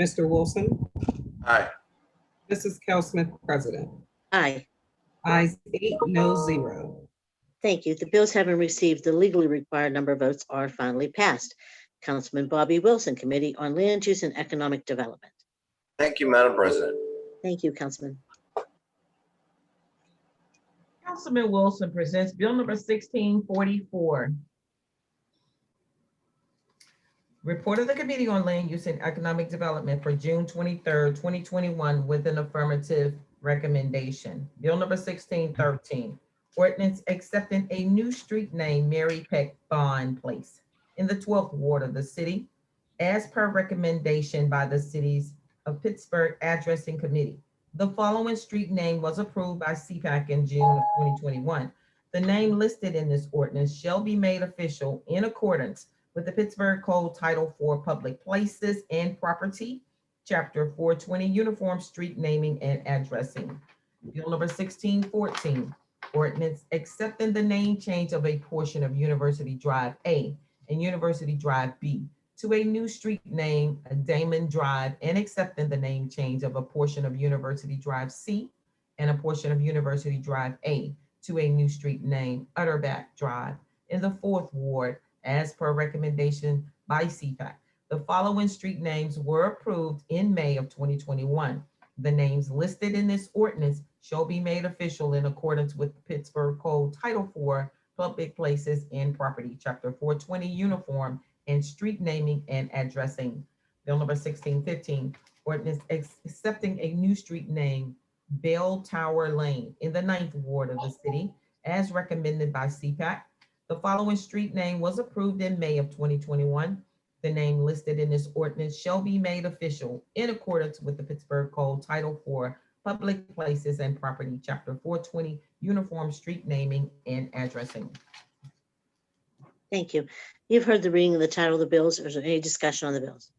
Mr. Wilson, Aye. Mrs. Cal Smith, President. Aye, Eyes eight, no zero. thank you. The bills having received the legally required number of votes are finally passed. Councilman Bobby Wilson, Committee on Land Use and Economic Development. Thank you, Madam President. Thank you, Councilman. Councilman Wilson presents Bill number sixteen forty-four. Report of the Committee on Land Use and Economic Development for June twenty-third, twenty twenty-one with an affirmative recommendation. Bill number sixteen thirteen, ordinance accepting a new street name, Mary Peck Bond Place, in the twelfth ward of the city, as per recommendation by the cities of Pittsburgh Addressing Committee. The following street name was approved by CPAC in June of 2021. The name listed in this ordinance shall be made official in accordance with the Pittsburgh Code Title IV Public Places and Property, Chapter 420, Uniform Street Naming and Addressing. Bill number 1614, ordinance accepting the name change of a portion of University Drive A and University Drive B to a new street name, Damon Drive, and accepting the name change of a portion of University Drive C and a portion of University Drive A to a new street name, Utterback Drive, in the fourth ward, as per recommendation by CPAC. The following street names were approved in May of 2021. The names listed in this ordinance shall be made official in accordance with Pittsburgh Code Title IV, Public Places and Property, Chapter 420, Uniform and street naming and addressing. Bill number sixteen fifteen, ordinance ex- accepting a new street name, Bell Tower Lane, in the ninth ward of the city, as recommended by CPAC. The following street name was approved in May of twenty twenty-one. The name listed in this ordinance shall be made official in accordance with the Pittsburgh Code Title IV, Public Places and Property, Chapter four twenty, Uniform Street Naming and Addressing. Thank you. You've heard the reading of the title of the bills. Is there any discussion on the bills?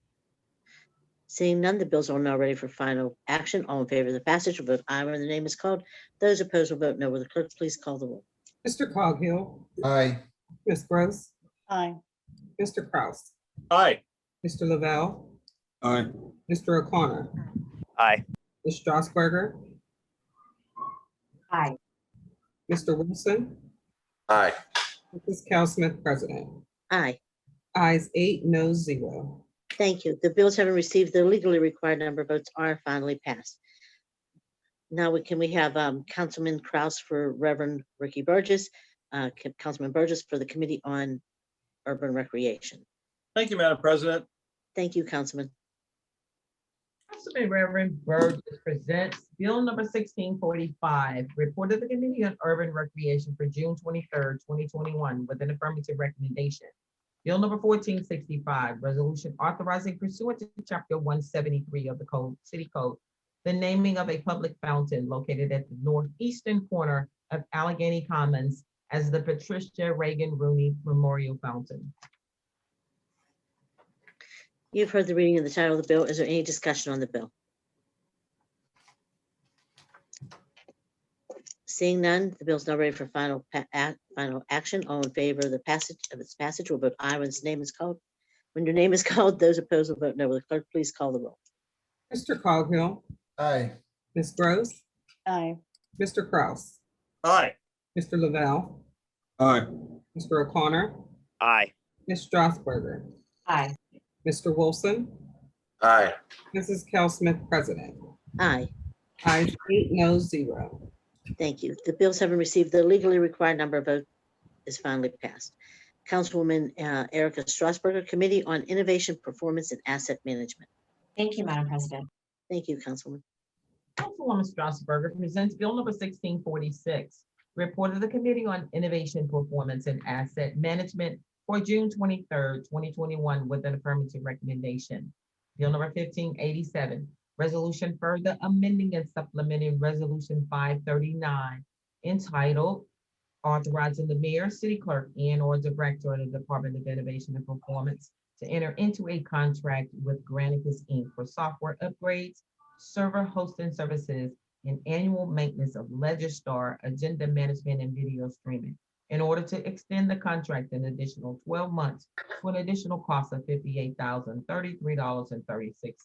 Seeing none, the bills are now ready for final action. All in favor of the passage will vote aye when the name is called. Those opposed will vote no. Will the clerk please call the roll? Mr. Coghill, Aye. Ms. Gross, aye, Mr. Kraus, Aye. Mr. Lavelle, Aye. Mr. O'Connor, Aye. Ms. Strasburger. Aye. Mr. Wilson, Aye. Mrs. Cal Smith, President. Aye, Eyes eight, no zero. thank you. The bills having received the legally required number of votes are finally passed. Now, we can we have um, Councilman Kraus for Reverend Ricky Burgess, uh, Ca- Councilman Burgess for the Committee on Urban Recreation. Thank you, Madam President. Thank you, Councilman. Councilman Reverend Burgess presents Bill number sixteen forty-five, report of the Committee on Urban Recreation for June twenty-third, twenty twenty-one, with an affirmative recommendation. Bill number fourteen sixty-five, resolution authorizing pursuant to chapter one seventy-three of the code, city code, the naming of a public fountain located at the northeastern corner of Allegheny Commons as the Patricia Reagan Rooney Memorial Fountain. You've heard the reading of the title of the bill. Is there any discussion on the bill? Seeing none, the bill's now ready for final, pa- ac- final action. All in favor of the passage of its passage will vote aye when its name is called. When your name is called, those opposed will vote no. Will the clerk please call the roll? Mr. Coghill, Aye. Ms. Gross, aye, Mr. Kraus, Aye. Mr. Lavelle, Aye. Mr. O'Connor, Aye. Ms. Strasburger. Aye. Mr. Wilson, Aye. Mrs. Cal Smith, President. Aye, Eyes eight, no zero. thank you. The bills having received the legally required number of votes is finally passed. Councilwoman uh, Erica Strasburger, Committee on Innovation, Performance, and Asset Management. thank you, Madam President, Thank you, Councilwoman. Councilwoman Strasburger presents Bill number sixteen forty-six, report of the Committee on Innovation, Performance, and Asset Management for June twenty-third, twenty twenty-one, with an affirmative recommendation. Bill number fifteen eighty-seven, resolution further amending and supplementing Resolution five thirty-nine entitled authorizing the mayor, city clerk, and/or director of the Department of Innovation and Performance to enter into a contract with Granicus Inc. for software upgrades server hosting services, and annual maintenance of Legistar agenda management and video streaming in order to extend the contract an additional twelve months to an additional cost of fifty-eight thousand thirty-three dollars and thirty-six